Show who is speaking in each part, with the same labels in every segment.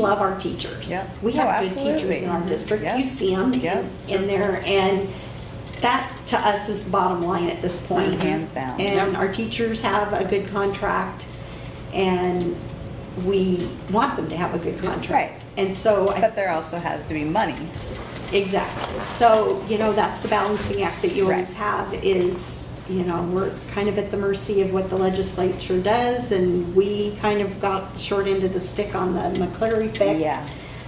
Speaker 1: love our teachers.
Speaker 2: Yep.
Speaker 1: We
Speaker 2: Oh,
Speaker 1: have good teachers
Speaker 2: absolutely.
Speaker 1: in our district.
Speaker 2: Yep.
Speaker 1: You see them
Speaker 2: Yep.
Speaker 1: in there, and that to us is the bottom line at this point.
Speaker 2: Hands down.
Speaker 1: And our teachers have a good contract, and we want them to have a good contract.
Speaker 2: Right.
Speaker 1: And so, I-
Speaker 2: But there also has to be money.
Speaker 1: exactly. So, you know, that's the balancing act that you always
Speaker 2: Right.
Speaker 1: have is, you know, we're kind of at the mercy of what the legislature does, and we kind of got the short end of the stick on the McCleary fix.
Speaker 2: Yeah.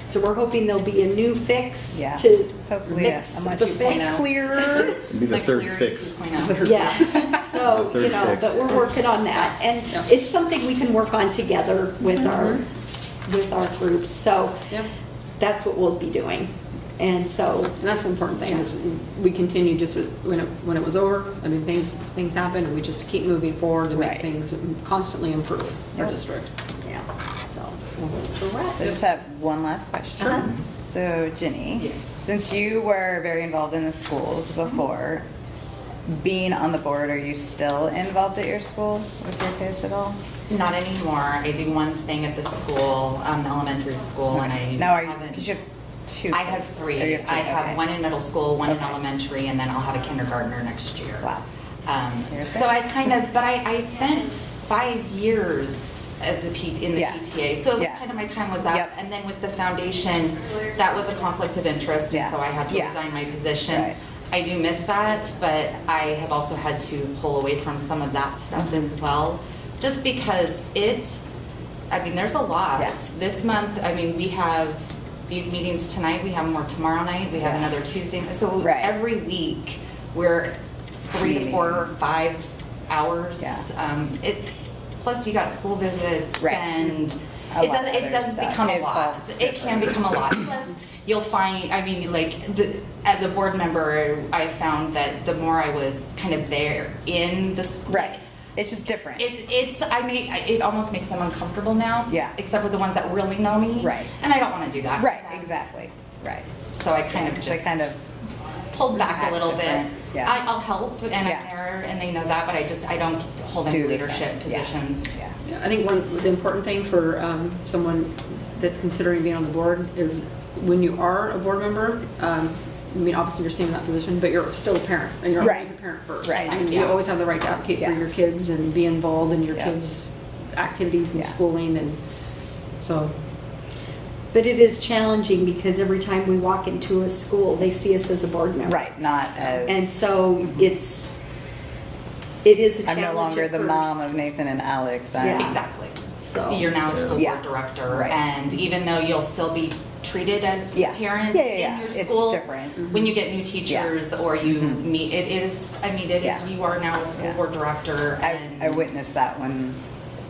Speaker 1: So we're hoping there'll be a new fix
Speaker 2: Yeah.
Speaker 1: to
Speaker 2: Hopefully,
Speaker 1: fix
Speaker 2: I'm on
Speaker 1: the
Speaker 2: 2.0.
Speaker 1: fix clearer.
Speaker 3: It'd be the
Speaker 4: Like
Speaker 3: third
Speaker 4: Larry
Speaker 3: fix.
Speaker 4: 2.0.
Speaker 1: Yeah, so,
Speaker 3: The
Speaker 1: you
Speaker 3: third
Speaker 1: know,
Speaker 3: fix.
Speaker 1: but we're working on that. And
Speaker 4: Yeah.
Speaker 1: it's something we can work on together
Speaker 2: Mm-hmm.
Speaker 1: with our, with our groups. So
Speaker 4: Yep.
Speaker 1: that's what we'll be doing. And so,
Speaker 4: And that's the important thing, is we continue just as- when it, when it was over, I mean, things, things happen, and we just keep moving forward to make
Speaker 2: Right.
Speaker 4: things constantly improve our
Speaker 2: Yep.
Speaker 4: district,
Speaker 1: yeah, so.
Speaker 4: so.
Speaker 2: So just have one last question.
Speaker 1: Sure.
Speaker 2: So Ginny,
Speaker 4: Yes.
Speaker 2: since you were very involved in the schools before, being on the board, are you still involved at your school with your kids at all?
Speaker 5: Not anymore. I do one thing at the school, um, elementary school, and I
Speaker 2: Now, are you,
Speaker 5: haven't-
Speaker 2: because you have two.
Speaker 5: I have
Speaker 2: kids.
Speaker 5: three.
Speaker 2: Or you two,
Speaker 5: I
Speaker 2: okay.
Speaker 5: have one in middle school, one in
Speaker 2: Okay.
Speaker 5: elementary, and then I'll have a kindergartner next year.
Speaker 2: Wow.
Speaker 5: Um,
Speaker 2: You're
Speaker 5: So
Speaker 2: good.
Speaker 5: I kind of, but I, I spent five years as a P, in the
Speaker 2: Yeah.
Speaker 5: PTA, so it was
Speaker 2: Yeah.
Speaker 5: kind of my time was up.
Speaker 2: Yep.
Speaker 5: And then with the foundation, that was a conflict of interest,
Speaker 2: Yeah.
Speaker 5: and so I had to
Speaker 2: Yeah.
Speaker 5: resign my position.
Speaker 2: Right.
Speaker 5: I do miss that, but I have also had to pull away from some of that stuff as
Speaker 2: Mm-hmm.
Speaker 5: well, just because it, I mean, there's a lot.
Speaker 2: Yeah.
Speaker 5: This month, I mean, we have these meetings tonight, we have more tomorrow night, we have
Speaker 2: Yeah.
Speaker 5: another Tuesday. So
Speaker 2: Right.
Speaker 5: every week, we're three to
Speaker 2: Meeting.
Speaker 5: four, five hours.
Speaker 2: Yeah.
Speaker 5: Um, It, plus you got school visits
Speaker 2: Right.
Speaker 5: and
Speaker 2: A
Speaker 5: it
Speaker 2: lot
Speaker 5: does,
Speaker 2: of
Speaker 5: it does
Speaker 2: other
Speaker 5: become a
Speaker 2: stuff.
Speaker 5: lot.
Speaker 2: Involves
Speaker 5: It can
Speaker 2: different-
Speaker 5: become a lot. Plus, you'll find, I mean, like, the, as a board member, I found that the more I was kind of there in the school.
Speaker 2: Right. It's just different.
Speaker 5: It, it's, I mean, it almost makes them uncomfortable now.
Speaker 2: Yeah.
Speaker 5: Except for the ones that really know me.
Speaker 2: Right.
Speaker 5: And I don't want to do that. to
Speaker 2: Right,
Speaker 5: them.
Speaker 2: exactly, right.
Speaker 5: So I kind of
Speaker 2: Because
Speaker 5: just
Speaker 2: I kind of,
Speaker 5: pulled back
Speaker 2: act
Speaker 5: a little bit.
Speaker 2: different. Yeah.
Speaker 5: I, I'll help and
Speaker 2: Yeah.
Speaker 5: I'm there and they know that, but I just, I don't hold
Speaker 2: Do
Speaker 5: any
Speaker 2: the
Speaker 5: leadership
Speaker 2: same. Yeah.
Speaker 5: positions.
Speaker 2: yeah.
Speaker 4: Yeah, I think one, the important thing for um, someone that's considering being on the board is when you are a board member, um, I mean, obviously you're staying in that position, but you're still a parent, and you're always a
Speaker 2: Right.
Speaker 4: parent first.
Speaker 2: Right.
Speaker 4: I mean, you
Speaker 5: Yeah.
Speaker 4: always have the right to advocate for
Speaker 2: Yeah.
Speaker 4: your kids and be involved in your
Speaker 2: Yeah.
Speaker 4: kids' activities and
Speaker 2: Yeah.
Speaker 4: schooling, and so,
Speaker 1: But it is challenging because every time we walk into a school, they see us as a board member.
Speaker 2: Right, not as.
Speaker 1: And so it's, it is a
Speaker 2: I'm
Speaker 1: challenge
Speaker 2: no longer
Speaker 1: at
Speaker 2: the
Speaker 1: first.
Speaker 2: mom of Nathan and Alex. I'm-
Speaker 1: Yeah.
Speaker 5: Exactly.
Speaker 1: So-
Speaker 5: You're now a school
Speaker 2: Um, Yeah.
Speaker 5: board director,
Speaker 2: Right.
Speaker 5: and even though you'll still be treated as
Speaker 2: Yeah.
Speaker 5: parents
Speaker 2: Yeah, yeah, yeah.
Speaker 5: in your
Speaker 2: It's
Speaker 5: school.
Speaker 2: different. Mm-hmm.
Speaker 5: When you get new teachers or you meet, it is, I mean, it
Speaker 2: Yeah.
Speaker 5: is, you are now a school
Speaker 2: Yeah.
Speaker 5: board director and.
Speaker 2: I, I witnessed that when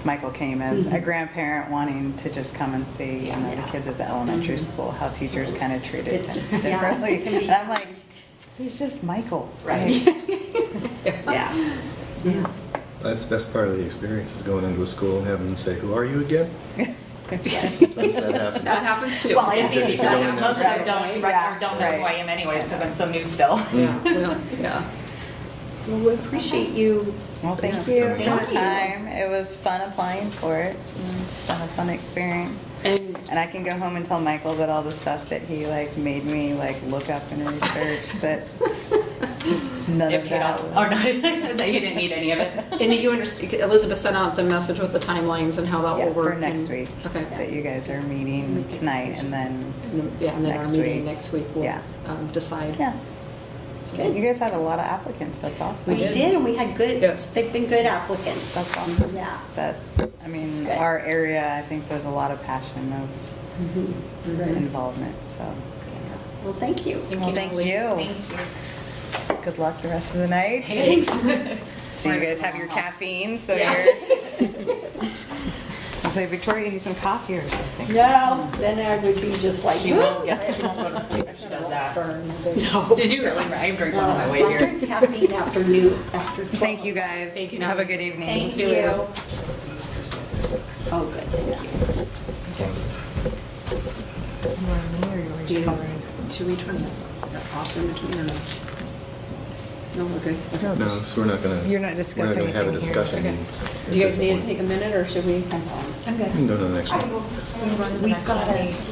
Speaker 2: Michael came as
Speaker 1: Mm-hmm.
Speaker 2: a grandparent wanting to just come and see, you know, the kids at the elementary school, how teachers kind of treated
Speaker 1: Mm-hmm. It's-
Speaker 2: him
Speaker 1: yeah,
Speaker 2: differently.
Speaker 1: it can be-
Speaker 2: And I'm like, he's just Michael.
Speaker 5: Right.
Speaker 2: Like,
Speaker 1: Yeah. Yeah.
Speaker 3: That's the best part of the experience is going into a school and having them say, "Who are you again?" Sometimes that happens.
Speaker 4: that happens too.
Speaker 5: Well,
Speaker 3: If
Speaker 5: it's
Speaker 3: you're
Speaker 5: easy for
Speaker 3: going
Speaker 5: them.
Speaker 3: in
Speaker 5: Most of them
Speaker 3: that
Speaker 5: don't,
Speaker 2: way.
Speaker 5: right, or don't know
Speaker 2: Yeah,
Speaker 5: who I am anyways, because I'm so new still.
Speaker 3: Yeah.
Speaker 4: Well, Yeah.
Speaker 1: Well, we appreciate you.
Speaker 2: Well, thank
Speaker 3: Yes.
Speaker 2: you for
Speaker 1: Thank
Speaker 2: the
Speaker 1: you.
Speaker 2: time. It was fun applying for it. and It's been a fun experience.
Speaker 4: And
Speaker 2: And I can go home and tell Michael about all the stuff that he like made me like look up and research that none of
Speaker 5: It paid
Speaker 2: that.
Speaker 5: off.
Speaker 2: was-
Speaker 5: Oh, no, that you didn't need any of it.
Speaker 4: And you understand, Elizabeth sent out the message with the timelines and how that
Speaker 2: Yeah,
Speaker 4: will work.
Speaker 2: for next
Speaker 4: and-
Speaker 2: week,
Speaker 4: Okay.
Speaker 2: that you guys are meeting tonight and then,
Speaker 4: Yeah, and then our
Speaker 2: Next
Speaker 4: meeting
Speaker 2: week.
Speaker 4: next week will
Speaker 2: Yeah.
Speaker 4: um, decide.
Speaker 2: yeah.
Speaker 1: Good.
Speaker 2: You guys had a lot of applicants, that's
Speaker 1: We
Speaker 2: awesome.
Speaker 4: did.
Speaker 1: did, and we had good,
Speaker 4: Yes.
Speaker 1: they've been good applicants.
Speaker 2: That's awesome.
Speaker 1: Yeah.
Speaker 2: That, I
Speaker 1: It's
Speaker 2: mean,
Speaker 1: good.
Speaker 2: our area, I think there's a lot of passion of
Speaker 4: Mm-hmm.
Speaker 2: involvement, so.
Speaker 1: Well, thank you.
Speaker 2: Well, thank you.
Speaker 5: Thank you.
Speaker 2: Good luck the rest of the night. So you guys have your caffeine, so you're. I'll say, Victoria, you need some coffee or something.
Speaker 1: No, then I would be just like,
Speaker 5: She won't, get- she won't go to sleep if she does that.
Speaker 4: No.
Speaker 5: Did you really? I drink one on my way
Speaker 1: I'll
Speaker 5: here.
Speaker 1: drink caffeine after noon, after 12.
Speaker 2: Thank you, guys.
Speaker 4: Thank you,
Speaker 2: Have a
Speaker 4: Natalie.
Speaker 2: good evening.
Speaker 1: Thank
Speaker 4: See you later.
Speaker 1: you. Oh, good, thank you.
Speaker 4: Should we turn that off in between or no? No, we're good. Okay.
Speaker 3: No, so we're not gonna.
Speaker 6: You're not discussing
Speaker 3: We're not gonna have a
Speaker 6: anything here.
Speaker 3: discussion.
Speaker 4: Okay.
Speaker 3: at
Speaker 4: Do you
Speaker 3: this
Speaker 4: guys need to
Speaker 3: point.
Speaker 4: take a minute or should we?
Speaker 1: I'm fine.
Speaker 5: I'm good.
Speaker 7: We can go to the next
Speaker 3: I
Speaker 7: one.
Speaker 3: can go first. Move on to the
Speaker 5: We've
Speaker 3: next one.
Speaker 5: got a-